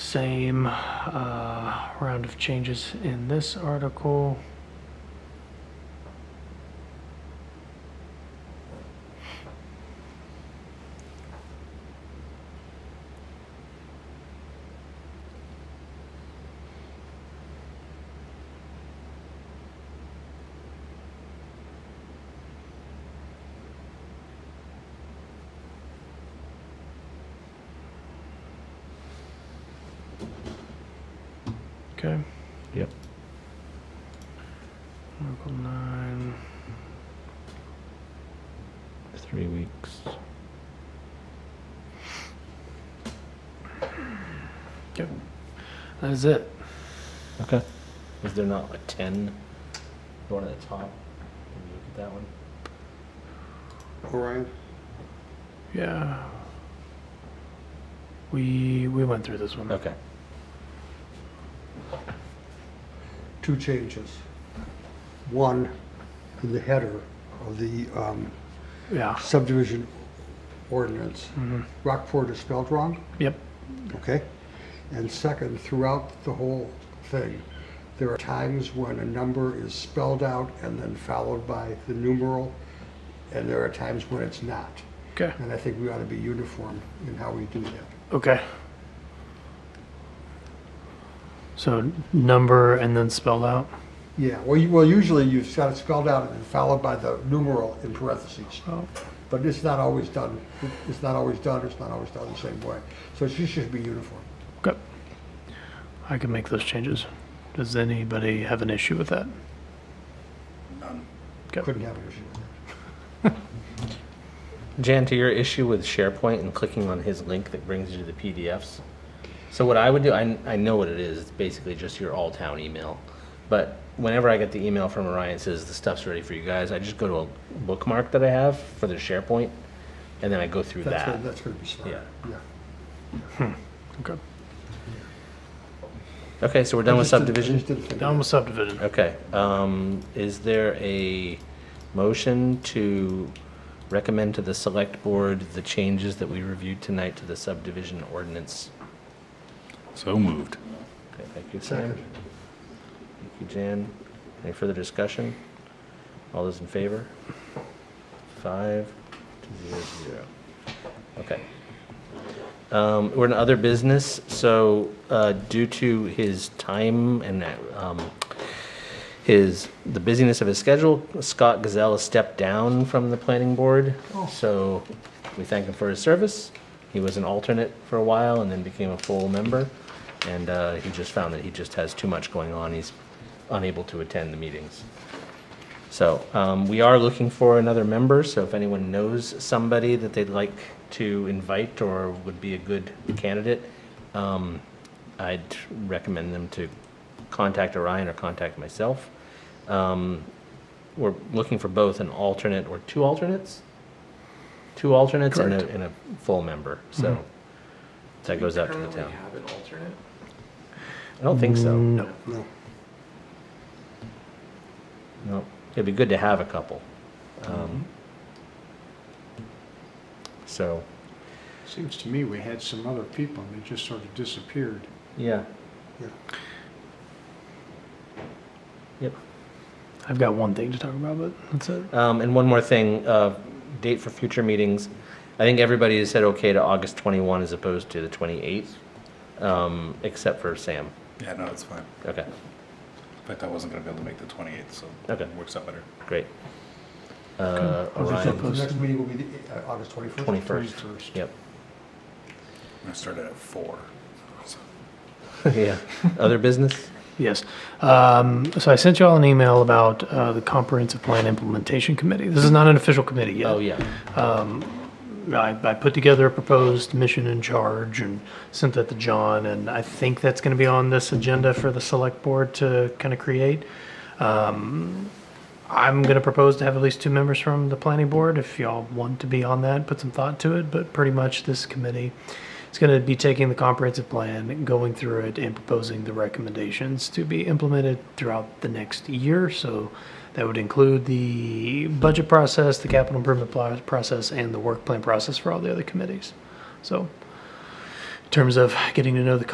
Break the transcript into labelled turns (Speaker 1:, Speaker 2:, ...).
Speaker 1: Same uh, round of changes in this article. Okay.
Speaker 2: Yep.
Speaker 1: Article nine.
Speaker 2: Three weeks.
Speaker 1: That's it.
Speaker 2: Okay.
Speaker 3: Is there not like ten? The one at the top. Can you look at that one?
Speaker 4: Orion?
Speaker 1: Yeah. We we went through this
Speaker 4: Hmm.
Speaker 1: one.
Speaker 3: Okay.
Speaker 4: Two changes. One, in the header of the um,
Speaker 1: Yeah.
Speaker 4: subdivision ordinance,
Speaker 1: Mhm.
Speaker 4: Rockport is spelled wrong,
Speaker 1: Yep.
Speaker 4: okay? And second, throughout the whole thing, there are times when a number is spelled out and then followed by the numeral, and there are times when it's not.
Speaker 1: Okay.
Speaker 4: And I think we ought to be uniform in how we do that.
Speaker 1: Okay. So number and then spelled out.
Speaker 4: Yeah, well, you, well, usually you've got it spelled out and then followed by the numeral in parentheses.
Speaker 1: Oh.
Speaker 4: But it's not always done, it's not always done, it's not always done the same way. So it should- should be uniform.
Speaker 1: Okay. I can make those changes. Does anybody have an issue with that?
Speaker 4: Couldn't have an issue with that.
Speaker 3: Jan, to your issue with SharePoint and clicking on his link that brings you to the PDFs. So what I would do, I, I know what it is. It's basically just your all-town email. But whenever I get the email from Orion that says the stuff's ready for you guys, I just go to a bookmark that I have for the SharePoint, and then I go through
Speaker 4: That's,
Speaker 3: that.
Speaker 4: gonna- that's gonna be smart,
Speaker 3: Yeah.
Speaker 4: yeah.
Speaker 1: Okay.
Speaker 3: Okay, so we're done with
Speaker 4: I just didn't- I
Speaker 3: subdivision.
Speaker 4: just didn't think of
Speaker 1: Down with subdivision.
Speaker 3: Okay, um, is there a motion to recommend to the select board the changes that we reviewed tonight to the subdivision ordinance?
Speaker 5: So moved.
Speaker 3: Okay, thank you,
Speaker 4: that.
Speaker 3: Sam.
Speaker 4: Second.
Speaker 3: Thank you, Jan. Any further discussion? All those in favor? Five, to zero, to zero. Okay. Um, We're in other business, so uh, due to his time and um, his, the busyness of his schedule, Scott Gazelle has stepped down from the planning board. So we thank him for his service. He was an alternate for a while and then became a full member. And uh, he just found that he just has too much going on. He's unable to attend the meetings. So um, we are looking for another member, so if anyone knows somebody that they'd like to invite or would be a good candidate, um, I'd recommend them to contact Orion or contact myself. Um, We're looking for both an alternate or two alternates? Two alternates and a,
Speaker 1: Correct.
Speaker 3: and a full member, so that goes out to the town.
Speaker 6: have an alternate?
Speaker 3: I don't think so.
Speaker 1: No.
Speaker 4: No,
Speaker 3: No, it'd be good to have a couple.
Speaker 6: Mm-hmm.
Speaker 3: Um, So,
Speaker 7: Seems to me we had some other people and they just sort of disappeared.
Speaker 3: yeah.
Speaker 4: yeah.
Speaker 3: Yep.
Speaker 1: I've got one thing to talk about, but that's it.
Speaker 3: Um, and one more thing, uh, date for future meetings. I think everybody has said okay to August 21 as opposed to the 28th, um, except for Sam.
Speaker 5: Yeah, no, it's fine.
Speaker 3: Okay,
Speaker 5: In fact, I wasn't gonna be able to make the twenty-eighth, so
Speaker 3: Okay.
Speaker 5: it works out better.
Speaker 3: great. Uh,
Speaker 1: I'll just
Speaker 4: So
Speaker 3: Orion,
Speaker 4: the next meeting will be the, uh, August twenty-first?
Speaker 3: 21st. Yep.
Speaker 5: I started at four. so-
Speaker 3: yeah. Other business?
Speaker 1: Yes. Um, so I sent you all an email about uh, the Comprehensive Plan Implementation Committee. This is not an official committee yet.
Speaker 3: Oh, yeah.
Speaker 1: I, I put together a proposed mission and charge and sent that to John, and I think that's going to be on this agenda for the select board to kind of create. Um, I'm going to propose to have at least two members from the planning board. If y'all want to be on that, put some thought to it, but pretty much this committee is going to be taking the comprehensive plan, going through it, and proposing the recommendations to be implemented throughout the next year. So that would include the budget process, the capital improvement pl- process, and the work plan process for all the other committees. So in terms of getting to know the